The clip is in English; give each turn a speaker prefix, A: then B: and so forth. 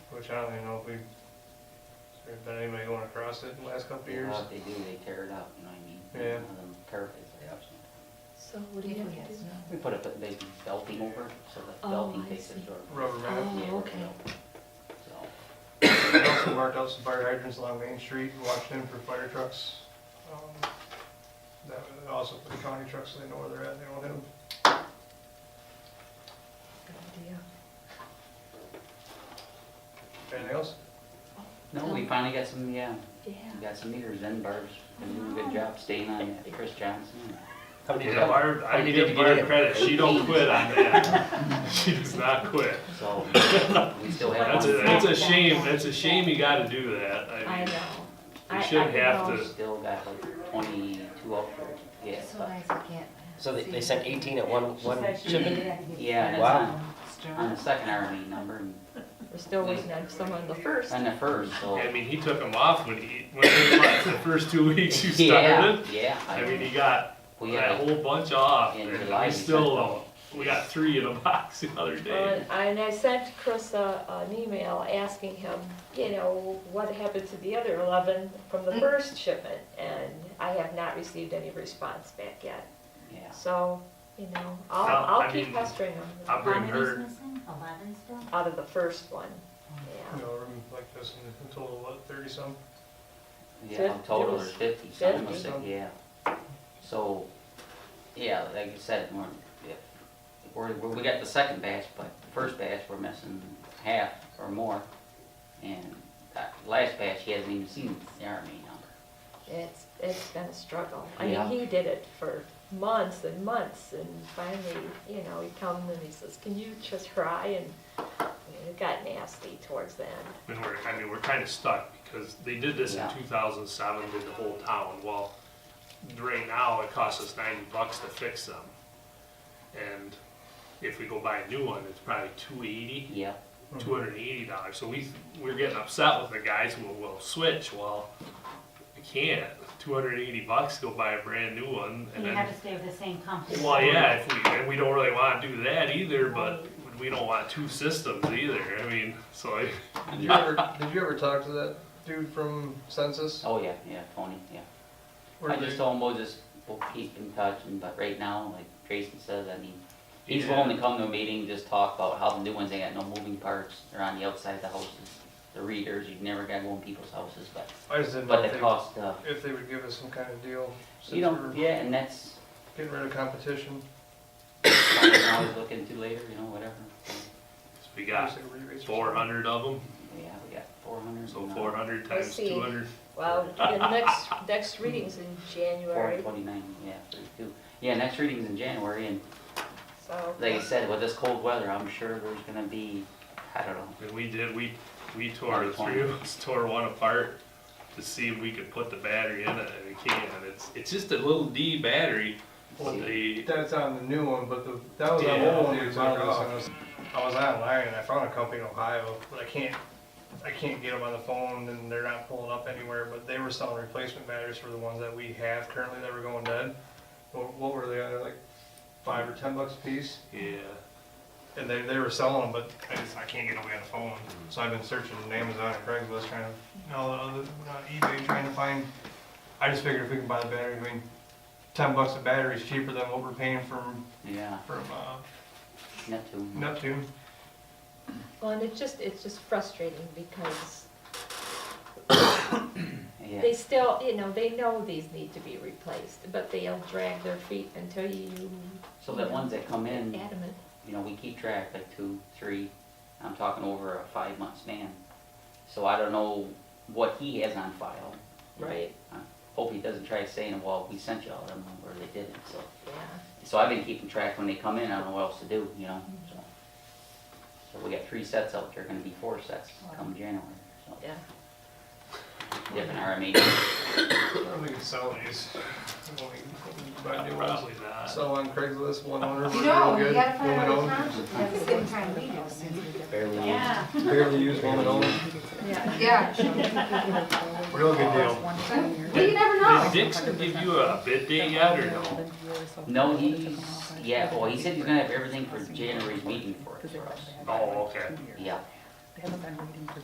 A: which I don't even know if we've, if there's been anybody going across it in the last couple of
B: You
A: years.
B: know, if they do, they tear it up, you know what I mean?
A: Yeah.
B: One of them turf is there up sometimes.
C: So what do you have to do?
B: "Oh, We put up a big belting over, it, so that
C: Oh,
B: belting
C: I
B: takes the
C: see.
B: sort of.
A: Rubber mat.
B: Yeah,
C: Oh, okay.
B: So,
A: I also marked out some fire hydrants along Main Street, watched them for fire trucks. Um, That was also for the county trucks, so they know where they're at, they don't have them.
C: Good idea.
A: Anything else?
B: no,
C: Oh.
B: we finally got some, yeah, we
C: Yeah.
B: got some meters in, Barb's been doing
C: Oh.
B: a good job staying on that, Chris Johnson.
D: I need to Barb, I need to give
B: Yeah.
D: Barb credit, she don't quit on that. She does not quit.
B: So, we still have
D: That's a,
B: one,
D: that's a shame, that's a shame you gotta do that,
C: I
D: I mean,
C: know.
D: you shouldn't have to.
B: still got like twenty-two out there, yeah,
C: It's so
B: but,
C: nice I can't.
E: So they, they sent eighteen at one, one shipment?
B: yeah, and it's
E: Wow.
B: on, on the second hourly number, and
C: We're still waiting on someone the first.
B: on the first, so.
D: I mean, he took them off when he, when he left the first two weeks you
B: Yeah,
D: started.
B: yeah,
D: I mean, he
B: I,
D: got
B: we had,
D: that whole bunch off,
B: In
D: and
B: July,
D: we
B: he
D: still,
B: sent
D: don't. we got three in a box the other day.
F: Well, Uh, And I sent Chris a, an email asking him, you know, what happened to the other eleven from the first shipment? And I have not received any response back yet,
B: yeah,
F: so, you know,
D: Well,
F: I'll,
D: I
F: I'll keep
D: mean-
F: pestering
D: I'll
F: him
D: bring her,
G: Eleven still?
F: out of the first one, yeah.
A: You know, room like this, and in total, what, thirty some?
B: yeah,
F: Fif-
B: I'm total
F: it
B: is
F: was
B: fifty, some was,
A: 50.
B: yeah. So, yeah, like you said, we're, yeah, we're, we're- we got the second batch, but the first batch, we're missing half or more. And that last batch, he hasn't even seen the RMA number.
F: It's, it's been a struggle. I mean,
B: Yeah.
F: he did it for months and months, and finally, you know, he comes and he says, can you just try? And it got nasty towards the end.
D: and we're, I mean, we're kinda stuck, because they did this in
B: Yeah.
D: two thousand seven, did the whole town, well, right now, it costs us ninety bucks to fix them. And if we go buy a new one, it's probably two eighty.
B: Yeah,
D: two hundred and eighty dollars. So we we're getting upset with the guys who will switch. Well, I can't. Two hundred and eighty bucks to go buy a brand new one, and
G: You have
D: then
G: to stay with the same company.
D: well, yeah, if we and we don't really want to do that either, but we don't want two systems either. I mean, so I,
A: Did you ever, did you ever talk to that dude from Census?
B: oh, yeah, yeah, Tony, yeah.
A: Where
B: I
A: they-
B: just told him we'll just, we'll keep in touch, and, but right now, like Jason says, I mean, he's
D: Yeah.
B: willing to come to a meeting, just talk about how the new ones, they got no moving parts, they're on the outside of the houses. The readers, you've never gotta go in people's houses, but,
A: I just didn't know
B: but the
A: if
B: cost, uh,
A: they, if they would give us some kind of deal,
B: you
A: since
B: know,
A: we're
B: yeah, and that's
A: getting rid of competition.
B: something I always look into later, you know, whatever.
D: we got
A: Obviously, rebates or
D: four hundred of them,
B: Yeah, we got four hundred.
D: so four hundred
F: We'll
D: times
F: see.
D: two hundred.
F: Well, the next, next reading's in
B: Four
F: January,
B: twenty-nine, yeah, thirty-two. Yeah, next reading's in January, and
F: so.
B: like I said, with this cold weather, I'm sure there's gonna be, I don't know,
D: And we did. We we tore the
B: Another
D: three of us tore one apart to see if we could put the battery in it, and we can't. It's it's just a little D battery. But the
A: That's on the new one, but the, that was
D: Yeah.
A: the old one we took off. and I was- I was online and I found a company in Ohio, but I can't, I can't get them on the phone and they're not pulling up anywhere, but they were selling replacement batteries for the ones that we have currently that were going dead. What, what were they on, They're like five or ten bucks a piece?
D: Yeah,
A: And they, they were selling them, but I just, I can't get away on the phone. So I've been searching on Amazon and Craigslist trying to, no, uh, not eBay, trying to find, I just figured if we can buy the battery, I mean, ten bucks a battery is cheaper than what we're paying from,
B: yeah,
A: from, uh,
B: Neptune.
A: Neptune.
C: Well, and it's just, it's just frustrating because
B: Yeah.
C: they still, you know, they know these need to be replaced, but they'll drag their feet until you
B: So the ones that come in,
C: adamant.
B: you know, we keep track, like two, three, I'm talking over a five month span. So I don't know what he has on file.
C: Right.
B: Hope he doesn't try saying, well, we sent you all them, or they didn't, so.
C: Yeah.
B: So I've been keeping track when they come in, I don't know what else to do, you know, so. So we got three sets out there, gonna be four sets come January, so.
C: Yeah.
B: Different RMA,
A: I don't think we could sell these. When we- when we Buy new ones.
D: probably not.
A: Sell on Craigslist, one owner, we're
G: No,
A: real
G: you
A: good,
G: gotta find
A: woman
G: another
A: owned.
G: township, that's the same time we do.
B: barely. on.
G: Yeah,
A: Barely used, woman owned,
C: Yeah.
G: yeah.
A: real good deal.
G: Well, you never know.
D: Did Dixon give you a bid date yet, or no?
B: No, he's, yeah, well, he said he's
A: Oh,
B: gonna have everything for January's meeting for us, for us,
D: Oh, okay.
B: yeah.